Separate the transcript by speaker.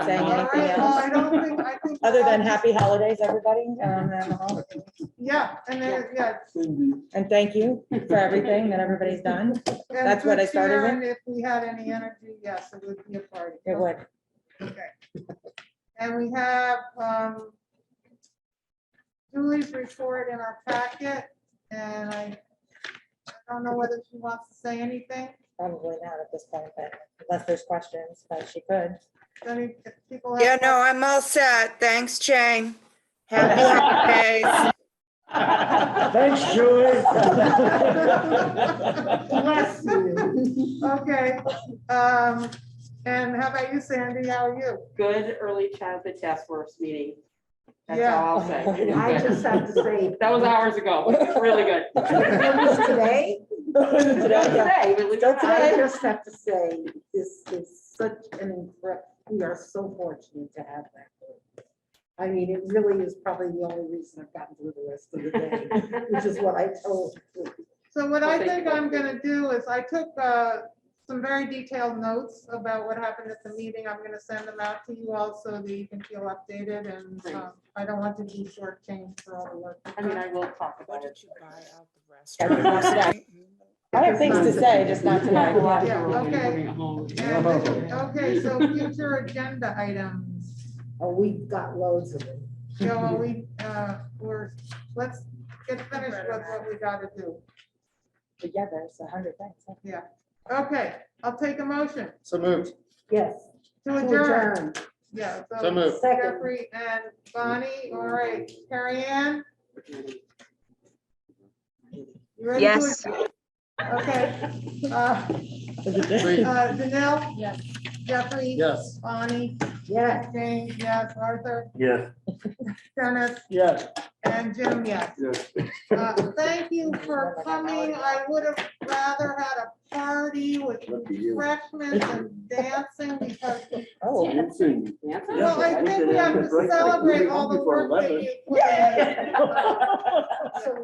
Speaker 1: saying
Speaker 2: All right,
Speaker 1: anything
Speaker 2: well, I
Speaker 1: else?
Speaker 2: don't think, I think.
Speaker 1: Other than happy holidays, everybody, um,
Speaker 2: Yeah, and then, yeah.
Speaker 3: Cindy,
Speaker 1: and thank you for everything that everybody's done.
Speaker 2: and
Speaker 1: That's what I
Speaker 2: good
Speaker 1: started
Speaker 2: cheer,
Speaker 1: with.
Speaker 2: and If we had any energy, yes, it would be a party.
Speaker 1: It would.
Speaker 2: Okay. And we have um, Julie's report in our packet, and I I don't know whether she wants to say anything.
Speaker 1: Probably not at this point, but unless there's questions, but she could.
Speaker 2: If Any if people have
Speaker 4: Yeah, no, I'm all set. Thanks, Jane. Happy holidays.
Speaker 3: Thanks, Julie.
Speaker 2: Bless you. Okay, um, and how about you, Sandy? How are you?
Speaker 5: good early childhood task force meeting. That's
Speaker 2: Yeah.
Speaker 5: all I'll say.
Speaker 6: I just have to say,
Speaker 5: That was hours ago. It's really good.
Speaker 6: it was today,
Speaker 1: Today,
Speaker 5: Today, believe it or
Speaker 1: Don't
Speaker 5: not.
Speaker 6: I just have to say, this is such an, incre- we are so fortunate to have that. group. I mean, it really is probably the only reason I've gotten through the rest of the day, which is what I told.
Speaker 2: So what
Speaker 5: Well,
Speaker 2: I
Speaker 5: thank
Speaker 2: think
Speaker 5: you.
Speaker 2: I'm gonna do is I took uh, some very detailed notes about what happened at the meeting. I'm gonna send them out to you all so that you can feel updated and
Speaker 5: Thanks.
Speaker 2: um, I don't want to be shortchanged for all the work.
Speaker 5: I mean, I will talk about it.
Speaker 1: I have things to say, just not
Speaker 5: Yeah,
Speaker 1: tonight.
Speaker 5: well,
Speaker 2: Yeah,
Speaker 5: we'll be
Speaker 2: okay.
Speaker 5: bringing it home.
Speaker 2: And this- Okay, so future agenda items.
Speaker 6: Oh, we've got loads of them.
Speaker 2: So are we, uh, we're, let's get finished with what we gotta do.
Speaker 1: But Yeah, there's a hundred things.
Speaker 2: Okay, I'll take a motion
Speaker 3: So moved.
Speaker 6: Yes.
Speaker 2: to
Speaker 6: to
Speaker 2: adjourn.
Speaker 6: adjourn.
Speaker 2: Yeah.
Speaker 3: So moved.
Speaker 6: Second.
Speaker 2: Jeffrey and Bonnie, all right, Carrie Ann? You ready to
Speaker 4: Yes.
Speaker 2: adjourn? Okay. Uh,
Speaker 3: Three,
Speaker 2: uh, Danelle?
Speaker 1: Yes.
Speaker 2: Jeffrey?
Speaker 3: Yes.
Speaker 2: Bonnie?
Speaker 6: Yes.
Speaker 2: Jane, yes, Arthur,
Speaker 3: Yes.
Speaker 2: Dennis,
Speaker 3: Yes.
Speaker 2: and Jim, yes. Uh, Thank you for coming. I would have rather had a party with refreshments and dancing because,
Speaker 1: Oh,
Speaker 2: well, I think we have to celebrate all the work that you put in.
Speaker 3: Yeah.
Speaker 6: So